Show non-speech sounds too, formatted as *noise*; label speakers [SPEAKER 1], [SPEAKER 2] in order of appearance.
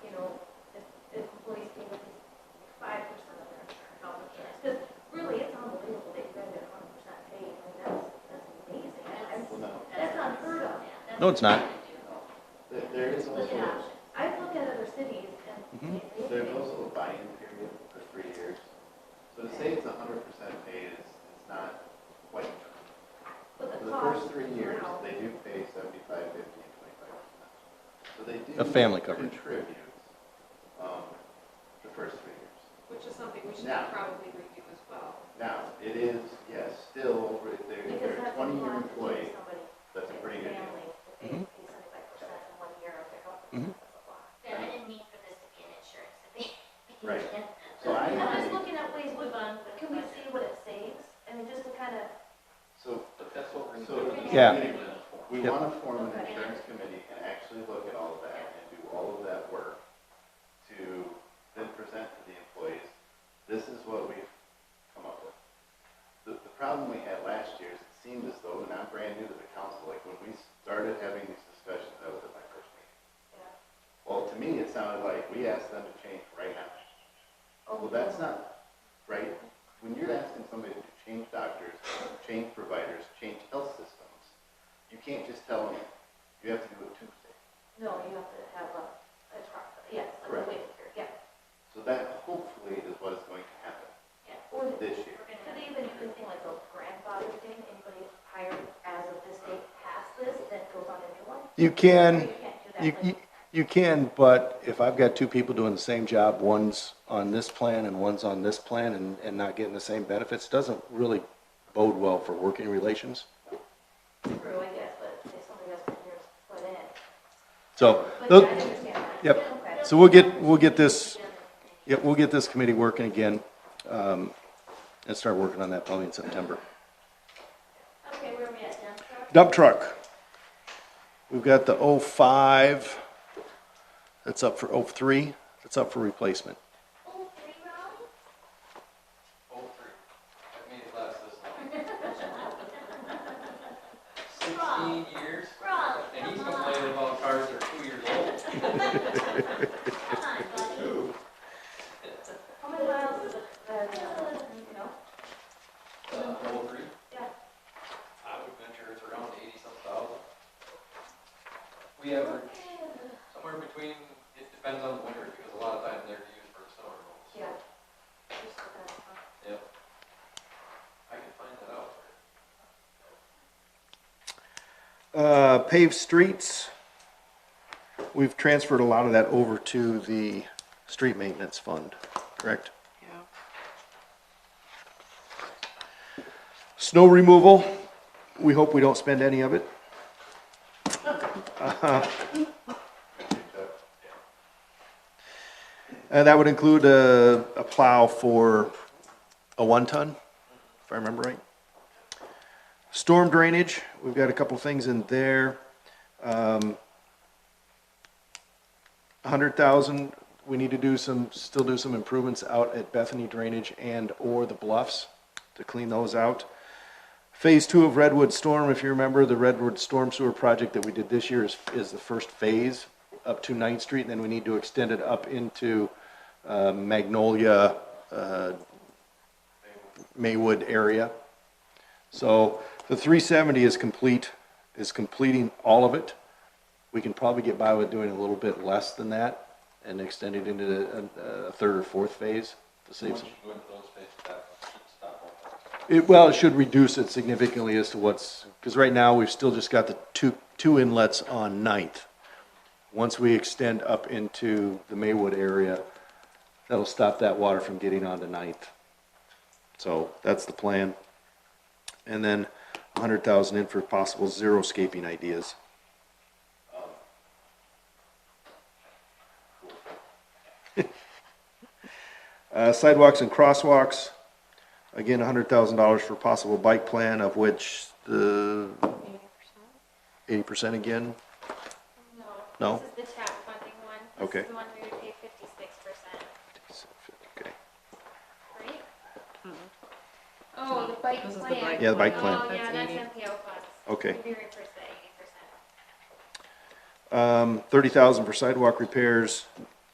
[SPEAKER 1] No, it's not.
[SPEAKER 2] There- There is also,
[SPEAKER 3] I've looked at other cities and.
[SPEAKER 2] there's also a buy-in period for three years. So to say it's hundred percent paid is, is not quite true.
[SPEAKER 3] But
[SPEAKER 2] For
[SPEAKER 3] the
[SPEAKER 2] the
[SPEAKER 3] cost.
[SPEAKER 2] first three years,
[SPEAKER 3] now-
[SPEAKER 2] they do pay seventy-five, fifty, and twenty-five percent. So they do.
[SPEAKER 1] Of family coverage.
[SPEAKER 2] Contribute, um, the first three years.
[SPEAKER 4] Which is something we should
[SPEAKER 2] Now.
[SPEAKER 4] probably review as well.
[SPEAKER 2] Now, it is, yes, still, over- they're,
[SPEAKER 3] Because
[SPEAKER 2] they're a
[SPEAKER 3] that's
[SPEAKER 2] twenty-year
[SPEAKER 3] implied to give
[SPEAKER 2] employee,
[SPEAKER 3] somebody
[SPEAKER 2] that's a pretty good deal.
[SPEAKER 3] family that they
[SPEAKER 1] Mhm.
[SPEAKER 3] pay 75% in one year of their health
[SPEAKER 1] Mhm.
[SPEAKER 3] insurance. That's a lot.
[SPEAKER 5] Yeah, I didn't mean for this to be an insurance debate.
[SPEAKER 2] Right. So I,
[SPEAKER 3] I'm just
[SPEAKER 2] agree.
[SPEAKER 3] looking at ways we,
[SPEAKER 5] But
[SPEAKER 3] can we see what it saves? I mean, just to kind of,
[SPEAKER 2] so
[SPEAKER 6] But that's what we're.
[SPEAKER 2] So-
[SPEAKER 6] doing.
[SPEAKER 1] Yeah.
[SPEAKER 2] We
[SPEAKER 1] Yep.
[SPEAKER 2] want to form an insurance committee and actually look at all of that and do all of that work to then present to the employees, this is what we've come up with. The, the problem we had last year is it seemed as though, and I'm brand new to the council, like when we started having these discussions, that was at my first meeting.
[SPEAKER 3] yeah.
[SPEAKER 2] Well, to me, it sounded like we asked them to change right now. Well, that's not right. When you're asking somebody to change doctors, change providers, change health systems, you can't just tell them, you have to do it Tuesday.
[SPEAKER 3] No, you have to have a, a truck, yes, like
[SPEAKER 2] Correct.
[SPEAKER 3] a waiver period, yeah.
[SPEAKER 2] So that hopefully is what is going to happen
[SPEAKER 3] Or the-
[SPEAKER 2] this year.
[SPEAKER 5] We're gonna
[SPEAKER 3] could they even do this thing like a grandfather thing, anybody hired as of this date past this, that goes on a new one?
[SPEAKER 1] You can,
[SPEAKER 3] You can't do that,
[SPEAKER 1] you,
[SPEAKER 3] like-
[SPEAKER 1] you, you can, but if I've got two people doing the same job, one's on this plan and one's on this plan and, and not getting the same benefits, doesn't really bode well for working relations.
[SPEAKER 3] True, I guess, but if somebody else put yours put in.
[SPEAKER 1] So,
[SPEAKER 3] But yeah,
[SPEAKER 1] tho-
[SPEAKER 3] I understand that.
[SPEAKER 1] yep.
[SPEAKER 3] Okay.
[SPEAKER 1] So we'll get, we'll get this, yeah, we'll get this committee working again, um, and start working on that probably in September.
[SPEAKER 5] Okay, where are we at, John?
[SPEAKER 1] Dump truck. We've got the oh five, that's up for oh three, that's up for replacement.
[SPEAKER 5] Oh, three rounds?
[SPEAKER 6] Oh, three. That made it last this long.
[SPEAKER 5] Wrong.
[SPEAKER 6] Sixteen years,
[SPEAKER 5] Raleigh,
[SPEAKER 6] and he's
[SPEAKER 5] come on,
[SPEAKER 6] complaining about cars that are two years old.
[SPEAKER 5] come on, buddy.
[SPEAKER 3] How many miles is it, uh, you know?
[SPEAKER 6] Uh, oh, three.
[SPEAKER 3] Yeah.
[SPEAKER 6] I would venture it's around eighty-some thousand. We average somewhere between, it depends on the winter, because a lot of times they're used for summer rolls.
[SPEAKER 3] Yeah. Just for that, huh?
[SPEAKER 6] Yep. I can find that out.
[SPEAKER 1] Uh, paved streets. We've transferred a lot of that over to the street maintenance fund, correct?
[SPEAKER 4] Yeah.
[SPEAKER 1] Snow removal, we hope we don't spend any of it. Uh, And that would include a, a plow for a one-ton, if I remember right. Storm drainage, we've got a couple things in there. Um, a hundred thousand, we need to do some, still do some improvements out at Bethany Drainage and/or the Bluffs to clean those out. Phase two of Redwood Storm, if you remember, the Redwood Storm Sewer project that we did this year is, is the first phase up to Ninth Street, and then we need to extend it up into uh, Magnolia, uh, Maywood area. So the three seventy is complete, is completing all of it. We can probably get by with doing a little bit less than that and extend it into the- a, a third or fourth phase to save
[SPEAKER 6] Once
[SPEAKER 1] some.
[SPEAKER 6] you go into those phases, that should stop all that.
[SPEAKER 1] It, well, it should reduce it significantly as to what's, because right now, we've still just got the two, two inlets on Ninth. Once we extend up into the Maywood area, that'll stop that water from getting onto Ninth. So that's the plan. And then a hundred thousand in for possible zero scaping ideas. *laughs* Uh, sidewalks and crosswalks. Again, hundred thousand dollars for possible bike plan, of which the eighty percent again. No.
[SPEAKER 5] This is the tap funding one.
[SPEAKER 1] Okay.
[SPEAKER 5] This is the one we would pay fifty-six percent,
[SPEAKER 1] Okay.
[SPEAKER 5] right? Oh, the bike
[SPEAKER 4] Mm-hmm. This is the
[SPEAKER 5] plan.
[SPEAKER 4] bike
[SPEAKER 1] Yeah, the bike plan.
[SPEAKER 5] Oh,
[SPEAKER 4] plan.
[SPEAKER 5] yeah,
[SPEAKER 4] That's
[SPEAKER 5] that's
[SPEAKER 4] 80.
[SPEAKER 5] MPO funds.
[SPEAKER 1] Okay.
[SPEAKER 5] We reimburse that eighty percent.
[SPEAKER 1] Um, thirty thousand for sidewalk repairs,